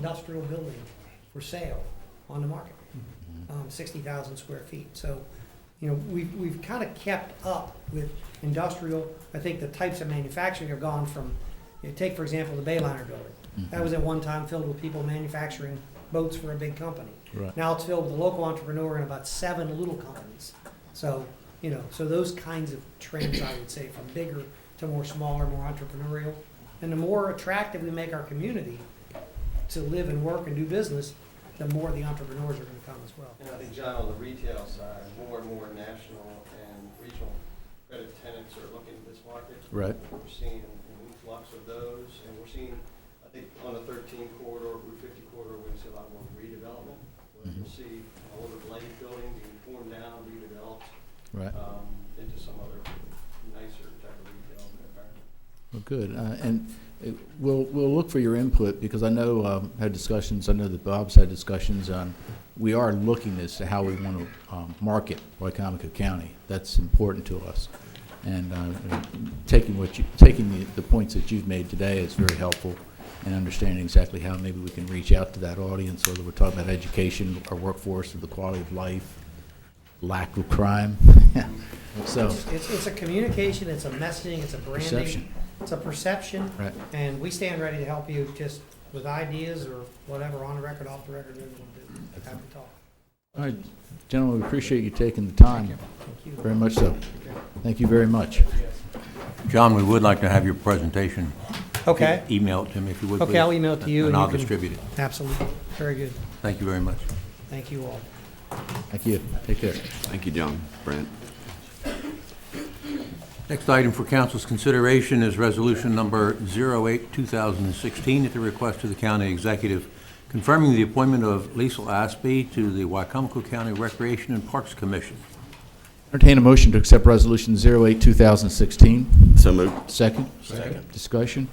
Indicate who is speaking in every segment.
Speaker 1: industrial building for sale on the market, um, sixty thousand square feet. So, you know, we've, we've kind of kept up with industrial. I think the types of manufacturing have gone from, you know, take for example, the Bayliner building.
Speaker 2: Mm-hmm.
Speaker 1: That was at one time filled with people manufacturing boats for a big company.
Speaker 2: Right.
Speaker 1: Now it's filled with a local entrepreneur and about seven little companies. So, you know, so those kinds of trends, I would say, from bigger to more smaller, more entrepreneurial. And the more attractive we make our community to live and work and do business, the more the entrepreneurs are gonna come as well.
Speaker 3: And I think, John, on the retail side, more and more national and regional credit tenants are looking at this market.
Speaker 2: Right.
Speaker 3: We're seeing an influx of those, and we're seeing, I think, on the thirteen corridor, Route fifty corridor, we're gonna see a lot more redevelopment. Where We'll
Speaker 4: Mm-hmm.
Speaker 3: see an older blade building being torn down, redeveloped,
Speaker 2: Right.
Speaker 3: um, into some other nicer type of retail environment.
Speaker 2: Well, good. Uh, And uh, we'll, we'll look for your input because I know, um, had discussions, I know that Bob's had discussions on, we are looking as to how we want to um, market Wycomico County. That's important to us. And uh, taking what you, taking the, the points that you've made today is very helpful in understanding exactly how maybe we can reach out to that audience, whether we're talking about education, our workforce, or the quality of life, lack of crime. So,
Speaker 1: It's, it's- it's a communication, it's a messaging, it's a branding,
Speaker 2: perception,
Speaker 1: it's a perception,
Speaker 2: right?
Speaker 1: and we stand ready to help you just with ideas or whatever, on the record, off the record, whatever you wanna do. Happy to talk.
Speaker 2: All right, gentlemen, we appreciate you taking the time,
Speaker 1: Thank you.
Speaker 2: very much so. Thank you very much.
Speaker 4: John, we would like to have your presentation.
Speaker 1: Okay,
Speaker 4: Email it to me if you would, please.
Speaker 1: Okay, I'll email it to you and
Speaker 4: And I'll
Speaker 1: you can-
Speaker 4: distribute it.
Speaker 1: absolutely. Very good.
Speaker 4: Thank you very much.
Speaker 1: Thank you all.
Speaker 2: Thank you, take care.
Speaker 5: Thank you, John. Brent?
Speaker 4: Next item for council's consideration is resolution number 08, 2016, at the request of the county executive, confirming the appointment of Liesel Aspey to the Wycomico County Recreation and Parks Commission.
Speaker 2: Entertain a motion to accept Resolution 08, 2016.
Speaker 5: So moved.
Speaker 2: Second? Second. Discussion?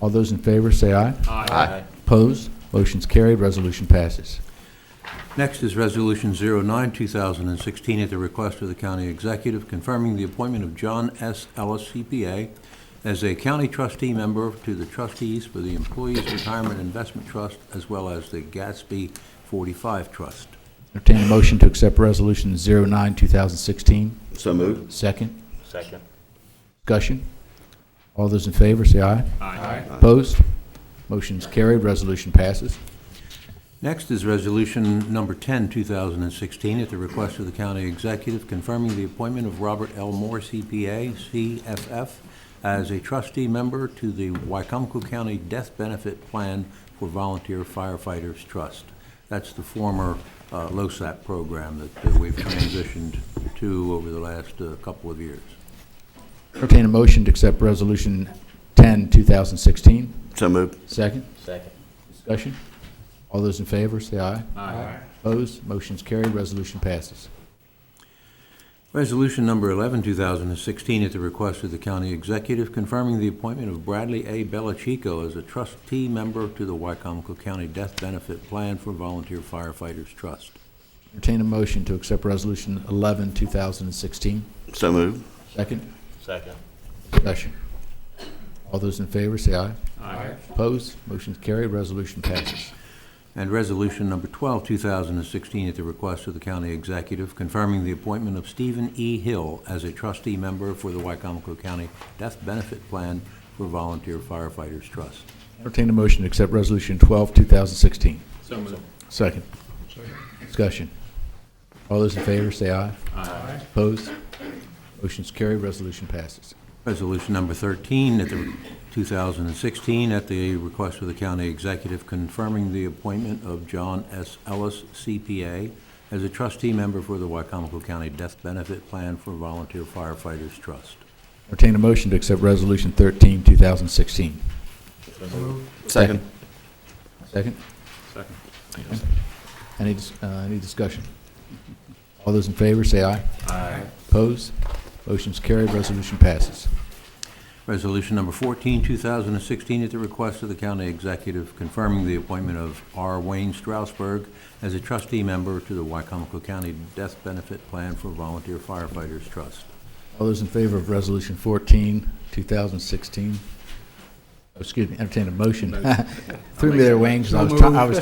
Speaker 2: All those in favor, say aye.
Speaker 5: Aye.
Speaker 2: Opposed? Motion's carried, resolution passes.
Speaker 4: Next is Resolution 09, 2016, at the request of the county executive, confirming the appointment of John S. Ellis, CPA, as a county trustee member to the trustees for the Employees Retirement Investment Trust, as well as the Gatsby 45 Trust.
Speaker 2: Entertain a motion to accept Resolution 09, 2016.
Speaker 5: So moved.
Speaker 2: Second?
Speaker 6: Second.
Speaker 2: Discussion? All those in favor, say aye.
Speaker 6: Aye.
Speaker 2: Opposed? Motion's carried, resolution passes.
Speaker 4: Next is Resolution Number 10, 2016, at the request of the county executive, confirming the appointment of Robert L. Moore, CPA, CFF, as a trustee member to the Wycomico County Death Benefit Plan for Volunteer Firefighters Trust. That's the former uh, LoSAP program that uh, we've transitioned to over the last uh, couple of years.
Speaker 2: Entertain a motion to accept Resolution 10, 2016.
Speaker 5: So moved.
Speaker 2: Second,
Speaker 6: Second.
Speaker 2: discussion? All those in favor, say aye.
Speaker 6: Aye.
Speaker 2: Opposed, motion's carried, resolution passes.
Speaker 4: Resolution number 11, 2016, at the request of the county executive, confirming the appointment of Bradley A. Belachico as a trustee member to the Wycomico County Death Benefit Plan for Volunteer Firefighters Trust.
Speaker 2: Entertain a motion to accept Resolution 11, 2016.
Speaker 5: So moved.
Speaker 2: Second,
Speaker 6: Second.
Speaker 2: discussion? All those in favor, say aye.
Speaker 6: Aye.
Speaker 2: Opposed, motion's carried, resolution passes.
Speaker 4: And resolution number 12, 2016, at the request of the county executive, confirming the appointment of Stephen E. Hill as a trustee member for the Wycomico County Death Benefit Plan for Volunteer Firefighters Trust.
Speaker 2: Entertain a motion to accept Resolution 12, 2016.
Speaker 6: So moved.
Speaker 2: Second, discussion? All those in favor, say aye. Aye. Opposed, motion's carried, resolution passes.
Speaker 4: Resolution number 13, at the 2016, at the request of the county executive, confirming the appointment of John S. Ellis, CPA, as a trustee member for the Wycomico County Death Benefit Plan for Volunteer Firefighters Trust.
Speaker 2: Entertain a motion to accept Resolution 13, 2016. Second?
Speaker 5: Second.
Speaker 6: Second.
Speaker 2: Any, dis- uh, any discussion? All those in favor, say aye.
Speaker 6: Aye.
Speaker 2: Opposed? Motion's carried, resolution passes.
Speaker 4: Resolution number 14, 2016, at the request of the county executive, confirming the appointment of R. Wayne Strausberg as a trustee member to the Wycomico County Death Benefit Plan for Volunteer Firefighters Trust.
Speaker 2: All those in favor of Resolution 14, 2016? excuse me, entertain a motion. Threw me their wings, and I was trying, I was